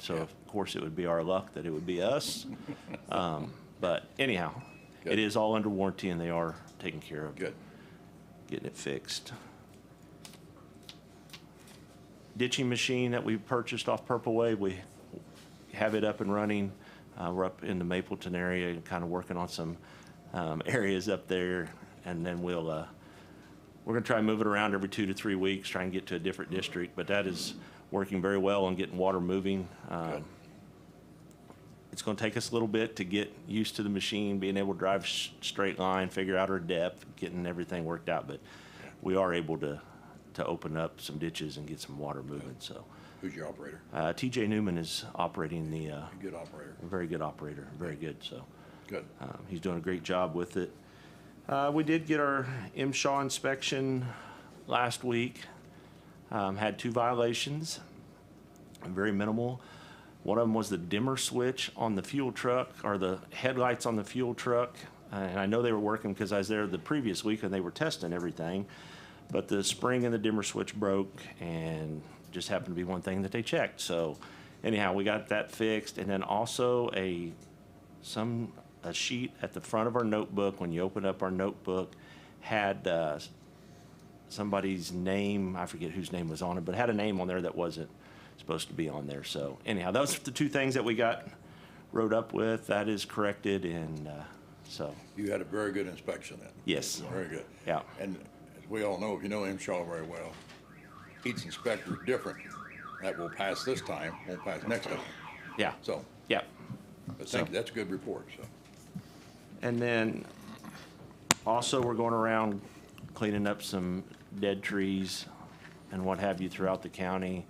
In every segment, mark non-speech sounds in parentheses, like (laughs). So of course it would be our luck that it would be (laughs) us. Um, But anyhow, it Good. is all under warranty and they are taking care of Good. getting it fixed. Ditching machine that we purchased off Purple Wave, we have it up and running. Uh, we're up in the Mapleton area and kind of working on some, um, (laughs) areas up there. And then we'll, uh, we're gonna try and move it around every two to three weeks, try and get to a different district, but that is working very well on getting water moving. Um, Good. it's going to take us a little bit to get used to the machine, being able to drive s- straight line, figure out our depth, getting everything worked out. But we are able to to open up some ditches and get some water moving. So Who's your operator? uh, T.J. Newman is operating the uh, Good operator. a very good operator, very good. So Good. um, he's doing a great job with it. Uh, we did get our M. Shaw inspection last week. Um, had two violations, very minimal. One of them was the dimmer switch on the fuel truck or the headlights on the fuel truck. Uh, and I know they were working because I was there the previous week and they were testing everything. But the spring in the dimmer switch broke and just happened to be one thing that they checked. So anyhow, we got that fixed. And then also a some a sheet at the front of our notebook when you open up our notebook had uh, somebody's name i forget whose name was on it but had a name on there that wasn't supposed to be on there so anyhow those are the two things that we got wrote up with that is corrected and uh, so You had a very good inspection then. yes Very good. Yeah. And as we all know, if you know M. Shaw very well, each inspector is different. That will pass this time, won't pass next time. yeah So, yeah but thank you, that's a good report, so. and then also we're going around cleaning up some dead trees and what have you throughout the county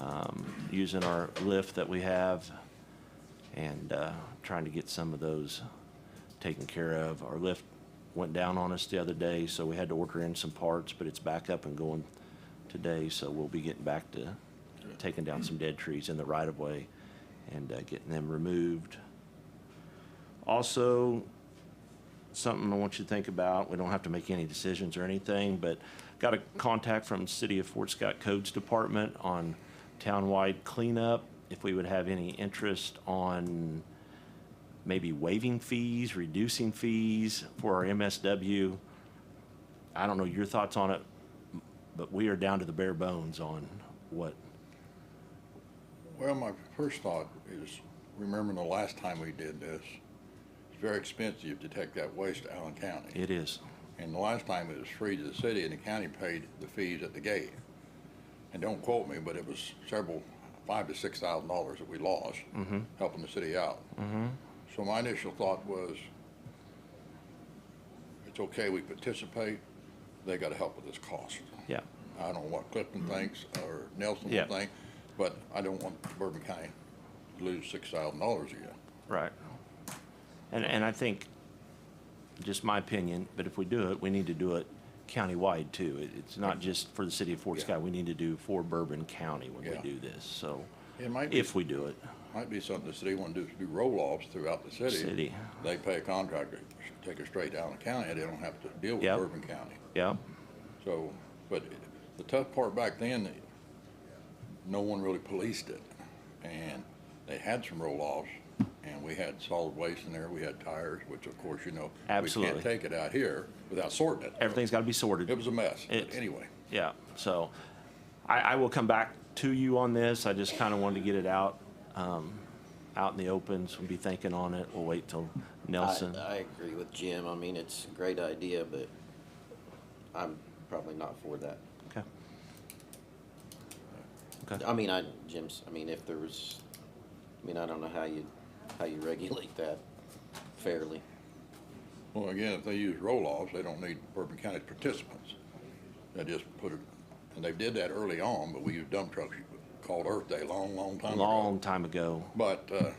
um, using our lift that we have and uh, trying to get some of those taken care of. Our lift went down on us the other day, so we had to order in some parts, but it's back up and going today, so we'll be getting back to taking down some dead trees in the right of way and uh, getting them removed. Also, something I want you to think about. We don't have to make any decisions or anything, but got a contact from City of Fort Scott Codes Department on townwide cleanup. If we would have any interest on maybe waiving fees, reducing fees for our MSW. I don't know your thoughts on it, but we are down to the bare bones on what, Well, my first thought is, remembering the last time we did this, it's very expensive to take that waste to Allen County. it is. And the last time it was free to the city and the county paid the fees at the gate. And don't quote me, but it was several, five to six thousand dollars that we lost Mm-hmm. helping the city out. So my initial thought was, it's okay, we participate, they gotta help with this cost. Yeah, I don't know what Clifton thinks or Nelson Mm-hmm. Yeah. will think, but I don't want Bourbon County to lose six thousand dollars again. right. And, and I think, just my opinion, but if we do it, we need to do it countywide too. It, it's not just for the city of Fort Yeah. Scott. We need to do for Bourbon County when we Yeah. do this, so, It might be if we do it. Might be something the city want to do, is do roll-offs throughout the city. City. They pay a contractor, take it straight down the county, they don't have to deal with Yep. Bourbon County. Yeah, So, but the tough part back then, no one really policed it. And they had some roll-offs, and we had solid waste in there, we had tires, which of course, you know, Absolutely. we can't take it out here without sorting it. everything's gotta be sorted. It was a mess, but It's- anyway, Yeah, so I, I will come back to you on this. I just kind of wanted to get it out, um, out in the open, so we'll be thinking on it. We'll wait till Nelson. uh, I, I agree with Jim. I mean, it's a great idea, but I'm probably not for that. Okay. I mean, I, Jim's, I mean, if there was, I mean, I don't know how you, how you (laughs) regulate that fairly. well, again, if they use roll-offs, they don't need Bourbon County participants. They just put it, and they did that early on, but we used dump trucks called Earth Day, long, long time ago. Long time ago. But, uh,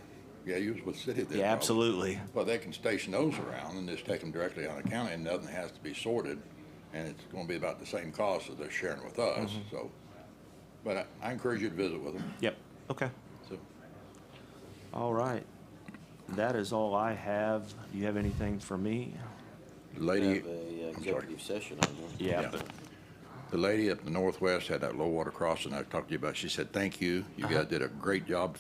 yeah, you was with city then. Yeah, probably. absolutely. But they can station those around and just take them directly out of county and nothing has to be sorted. And it's gonna be about the same cost as they're sharing with us, Mm-hmm. so. But I, I encourage you to visit with them, Yep, okay. so. All right. That is all I have. Do you have anything for me? Lady, Have a uh, I'm sorry. executive session on that. Yeah, Yeah. The lady up in the northwest had that low water crossing I talked to you about. She said, thank you. You guys did a great job